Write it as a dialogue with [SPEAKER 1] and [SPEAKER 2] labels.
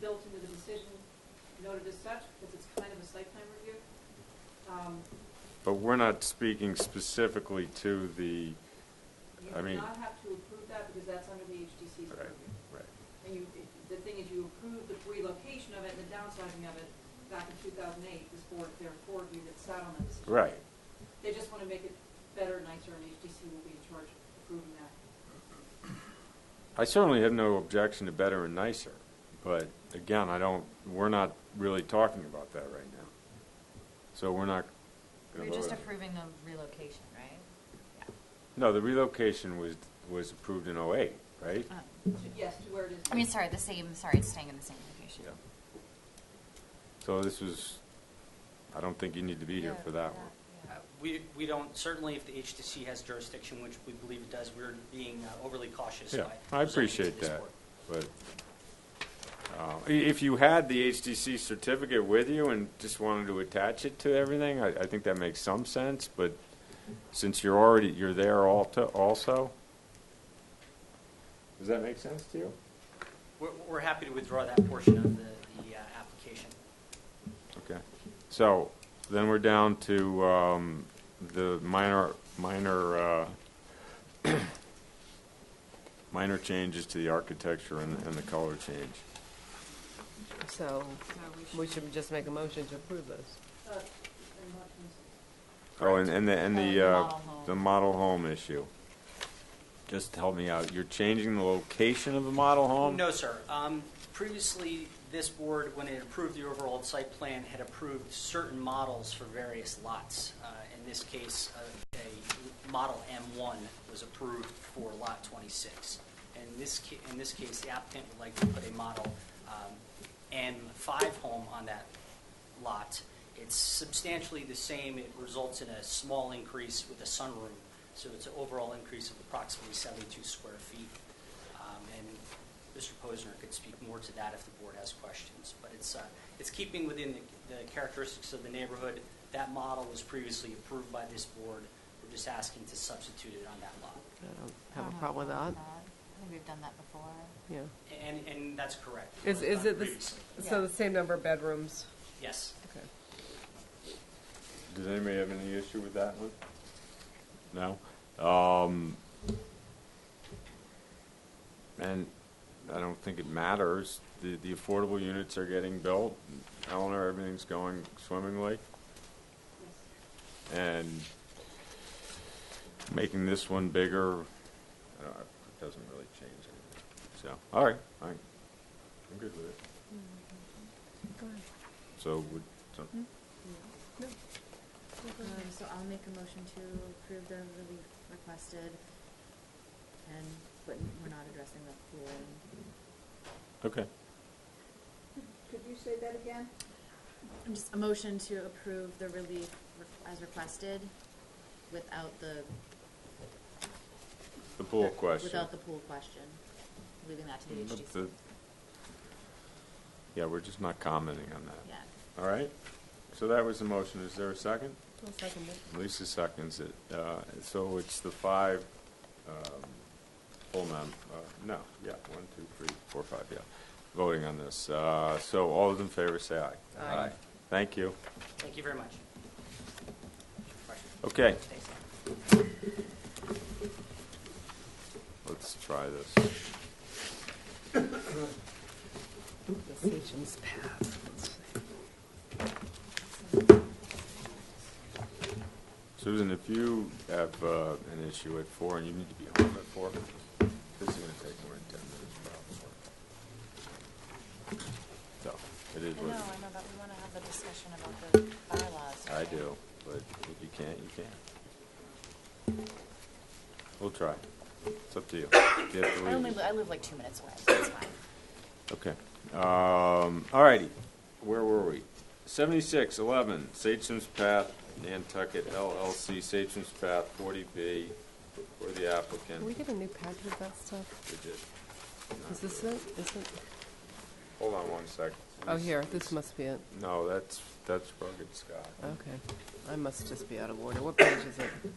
[SPEAKER 1] built into the decision noted as such, because it's kind of a site plan review. Um,
[SPEAKER 2] But we're not speaking specifically to the, I
[SPEAKER 1] You do
[SPEAKER 2] mean-
[SPEAKER 1] not have to approve that, because that's under the HDC's
[SPEAKER 2] right,
[SPEAKER 1] purview.
[SPEAKER 2] right.
[SPEAKER 1] And you, the thing is, you approved the relocation of it and the downsizing of it back in two thousand eight, this board, there are four of you that sat on that decision.
[SPEAKER 2] Right.
[SPEAKER 1] They just want to make it better, nicer, and HDC will be in charge of approving that.
[SPEAKER 2] I certainly have no objection to better and nicer, but again, I don't, we're not really talking about that right now. So we're not.
[SPEAKER 3] We're just approving the relocation, right?
[SPEAKER 2] No, the relocation was, was approved in '08, right?
[SPEAKER 3] Uh,
[SPEAKER 1] To- Yes, to where it is.
[SPEAKER 3] I mean, sorry, the same, sorry, it's staying in the same location.
[SPEAKER 2] Yeah. So this was, I don't think you need to be here
[SPEAKER 3] Yeah,
[SPEAKER 2] for that one.
[SPEAKER 3] yeah.
[SPEAKER 4] Uh, We, we don't, certainly if the HTC has jurisdiction, which we believe it does, we're being uh, overly cautious by.
[SPEAKER 2] Yeah, I
[SPEAKER 4] presenting to
[SPEAKER 2] appreciate
[SPEAKER 4] this
[SPEAKER 2] that,
[SPEAKER 4] board.
[SPEAKER 2] but uh, i- if you had the HDC certificate with you and just wanted to attach it to everything, I, I think that makes some sense, but since you're already, you're there al- to- also, does that make sense to you?
[SPEAKER 4] We're, we're happy to withdraw that portion of the, the uh, application.
[SPEAKER 2] Okay, so then we're down to um, the minor, minor, uh, minor changes to the architecture and and the color change.
[SPEAKER 5] So,
[SPEAKER 1] So we should-
[SPEAKER 5] we should just make a motion to approve those.
[SPEAKER 1] uh, and what was-
[SPEAKER 2] Oh, and, and the, and
[SPEAKER 3] Uh,
[SPEAKER 2] the,
[SPEAKER 3] the
[SPEAKER 2] uh,
[SPEAKER 3] model home.
[SPEAKER 2] the model home issue. Just help me out, you're changing the location of the model home?
[SPEAKER 4] No, sir. Um, Previously, this board, when it approved the overall site plan, had approved certain models for various lots. Uh, In this case, a a Model M1 was approved for Lot 26. In this, ca- in this case, the applicant would like to put a Model um, M5 home on that lot. It's substantially the same. It results in a small increase with a sunroom, so it's an overall increase of approximately 72 square feet. Um, And Mr. Posner could speak more to that if the board has questions. But it's, uh, it's keeping within the- the characteristics of the neighborhood. That model was previously approved by this board. We're just asking to substitute it on that lot.
[SPEAKER 5] I don't
[SPEAKER 3] I
[SPEAKER 5] have
[SPEAKER 3] don't
[SPEAKER 5] a problem with that,
[SPEAKER 3] I think we've done Uh-huh, that before.
[SPEAKER 5] yeah.
[SPEAKER 4] And, and that's correct.
[SPEAKER 5] Is,
[SPEAKER 4] was
[SPEAKER 5] is
[SPEAKER 4] done
[SPEAKER 5] it, the s-
[SPEAKER 4] previously.
[SPEAKER 5] so the same number of bedrooms?
[SPEAKER 4] Yes.
[SPEAKER 5] Okay.
[SPEAKER 2] Does anybody have any issue with that one? No? Um, and I don't think it matters, the, the affordable units are getting built, Eleanor, everything's going swimmingly,
[SPEAKER 1] yes.
[SPEAKER 2] and making this one bigger, I don't- it doesn't really change anything. So, all right, all right, I'm good with it.
[SPEAKER 6] Go ahead. Hmm?
[SPEAKER 2] So would, so-
[SPEAKER 6] No. No, go Um, ahead.
[SPEAKER 7] Mm-hmm. So I'll make a motion to approve the relief requested, and, but we're not addressing the pool.
[SPEAKER 2] okay.
[SPEAKER 1] Could you say that again?
[SPEAKER 7] I'm just, a motion to approve the relief re- as requested without the.
[SPEAKER 2] The pool question. Mm,
[SPEAKER 7] Without the pool question, leaving that to the
[SPEAKER 2] But
[SPEAKER 7] HDC.
[SPEAKER 2] the- Yeah, we're just not commenting on that.
[SPEAKER 7] Yeah.
[SPEAKER 2] All right? So that was the motion. Is there a second?
[SPEAKER 5] I'll second it.
[SPEAKER 2] Lisa seconds it. Uh, So it's the five, um, full mem, uh, no, yeah, one, two, three, four, five, yeah, voting on this. Uh, So all those in favor say aye.
[SPEAKER 5] Aye.
[SPEAKER 2] Thank you.
[SPEAKER 4] Thank you very much. Question?
[SPEAKER 2] Okay,
[SPEAKER 4] Thanks.
[SPEAKER 2] let's try this.
[SPEAKER 5] Decisions passed.
[SPEAKER 2] Susan, if you have uh, an issue at four and you need to be home at four, this is going to take more than ten minutes probably. So, it
[SPEAKER 3] I
[SPEAKER 2] is
[SPEAKER 3] know, I
[SPEAKER 2] what it
[SPEAKER 3] know,
[SPEAKER 2] is.
[SPEAKER 3] but we want to have the discussion about the bylaws.
[SPEAKER 2] I
[SPEAKER 3] right?
[SPEAKER 2] do, but if you can't, you can't. We'll try. It's up to you. You have to
[SPEAKER 3] I only,
[SPEAKER 2] leave.
[SPEAKER 3] li- I live like two minutes away, so it's fine.
[SPEAKER 2] Okay. Um, all righty. Where were we? Seventy-six, eleven, Satcham's Path, Nantucket LLC, Satcham's Path, forty B, for the applicant.
[SPEAKER 5] Can we get a new package of that stuff?
[SPEAKER 2] We did. Not
[SPEAKER 5] Is this
[SPEAKER 2] good.
[SPEAKER 5] it? Is it?
[SPEAKER 2] Hold on one sec.
[SPEAKER 5] Oh, here, this Oh. must be it.
[SPEAKER 2] No, that's, that's rugged Scott.
[SPEAKER 5] Okay. I must just be out of order. What page is it?